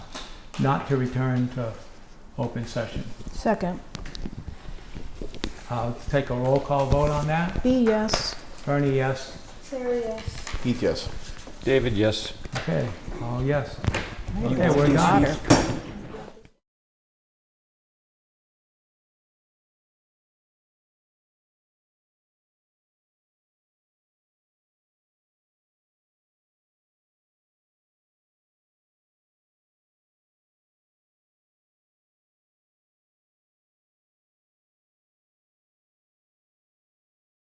not to return to open session. Second. I'll take a roll call vote on that. B, yes. Bernie, yes. Sarah, yes. Heath, yes. David, yes. Okay, all yes. Okay, we're done.